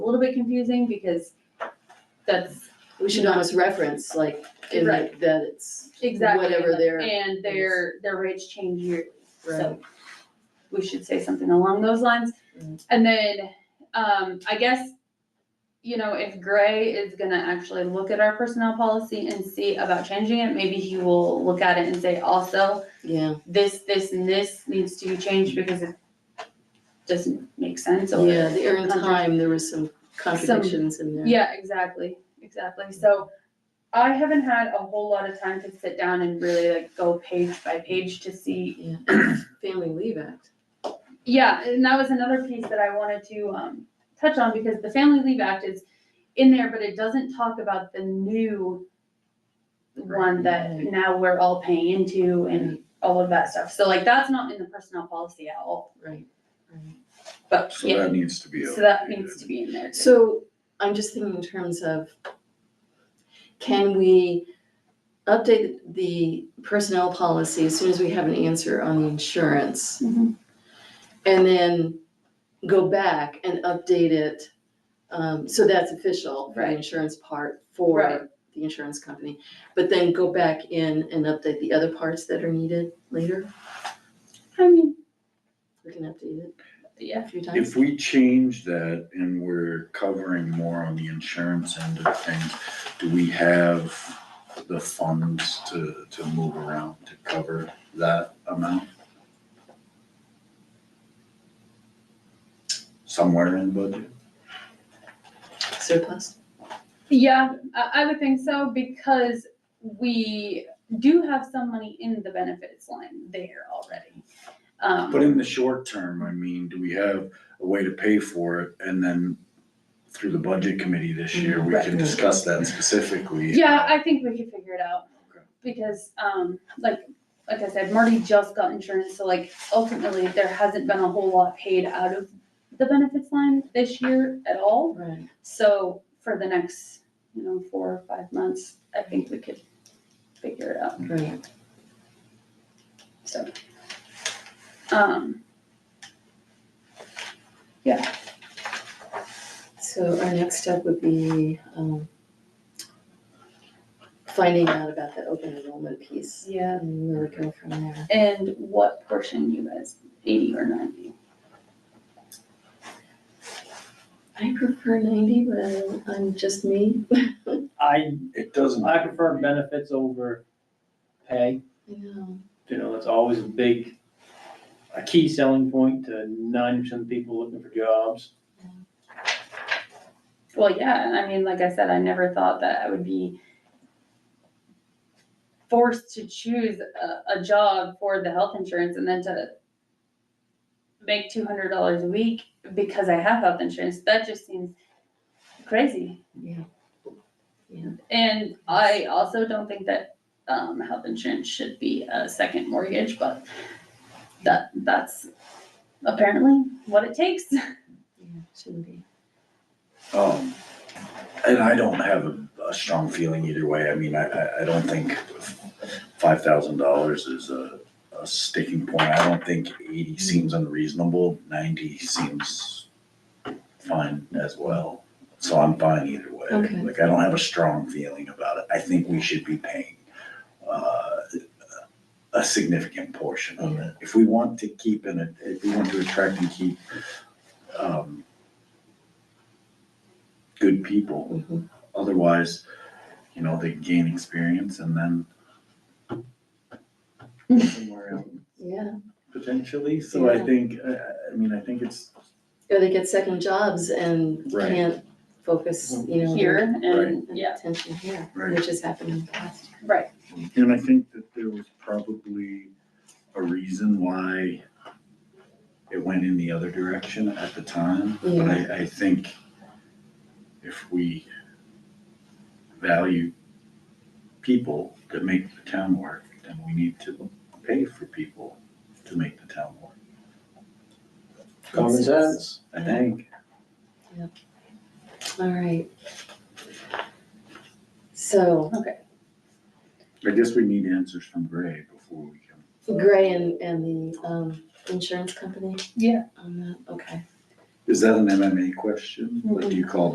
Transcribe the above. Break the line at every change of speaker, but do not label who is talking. a little bit confusing because that's
We should almost reference, like, in
Right.
that that it's,
exactly.
Whatever their-
And their, their rates change yearly,
Right.
so we should say something along those lines. And then, um, I guess, you know, if Gray is gonna actually look at our personnel policy and see about changing it, maybe he will look at it and say also,
yeah,
this, this, and this needs to be changed because it doesn't make sense or.
yeah, the earned
Contract.
time, there was some contradictions in there.
Yeah, exactly, exactly. So I haven't had a whole lot of time to sit down and really like go page by page to see.
Yeah, and Family Leave Act,
Yeah, and that was another piece that I wanted to um touch on because the Family Leave Act is in there, but it doesn't talk about the new one that
Right.
now we're all paying into and all of that stuff. So like that's not in the personnel policy at all,
right, right.
but
So
yeah,
that needs to be.
so that needs to be in there. too.
So I'm just thinking in terms of, can we update the personnel policy as soon as we have an answer on the insurance?
Mhm.
And then go back and update it, um, so that's official for the
Right.
insurance part
Right.
for the insurance company. But then go back in and update the other parts that are needed later,
I mean,
we can update it
yeah,
a few times.
If we change that and we're covering more on the insurance end of things, do we have the funds to, to move around to cover that amount? Somewhere in the budget?
Surplus,
Yeah, I, I would think so because we do have some money in the benefits line there already. Um,
But in the short term, I mean, do we have a way to pay for it? And then through the budget committee this year, we can discuss that specifically.
Yeah, I think we could figure it out
Okay.
because, um, like, like I said, Marty just got insurance, so like ultimately there hasn't been a whole lot paid out of the benefits line this year at all.
right,
So for the next, you know, four or five months, I think we could figure it out.
right,
So. Um,
so our next step would be, um, finding out about the open enrollment piece,
yeah,
and where we go from there.
and what portion you guys, eighty or ninety?
I prefer ninety, but I'm just me,
I,
It doesn't.
I prefer benefits over pay,
you know,
you know, it's always a big, a key selling point to ninety percent of people looking for jobs.
Well, yeah, I mean, like I said, I never thought that I would be forced to choose a, a job for the health insurance and then to make two hundred dollars a week because I have health insurance. That just seems crazy.
yeah,
And I also don't think that um health insurance should be a second mortgage, but that that's apparently what it takes.
yeah, shouldn't be.
Um, and I don't have a, a strong feeling either way. I mean, I, I, I don't think five thousand dollars is a, a sticking point. I don't think eighty seems unreasonable. Ninety seems fine as well. So I'm fine either way.
Okay.
Like, I don't have a strong feeling about it. I think we should be paying, uh, a significant portion of it. If we want to keep and, if we want to attract and keep, um, good people,
Mhm.
otherwise, you know, they gain experience and then somewhere else
Yeah,
potentially, so I
Yeah.
think, I, I- I mean, I think it's,
or they get second jobs and
Right.
can't focus, you know. their
Here and yeah,
Attention here,
Right.
which has happened in the past.
right.
and I think that there was probably a reason why it went in the other direction at the time, but I, I think if we value people that make the town work, then we need to pay for people to make the town work,
Common sense.
I think.
All right. So
I guess we need answers from Gray before we can.
Gray and, and the, um, insurance company
Yeah.
on that, okay.
Is that an MMA question? Like, do you call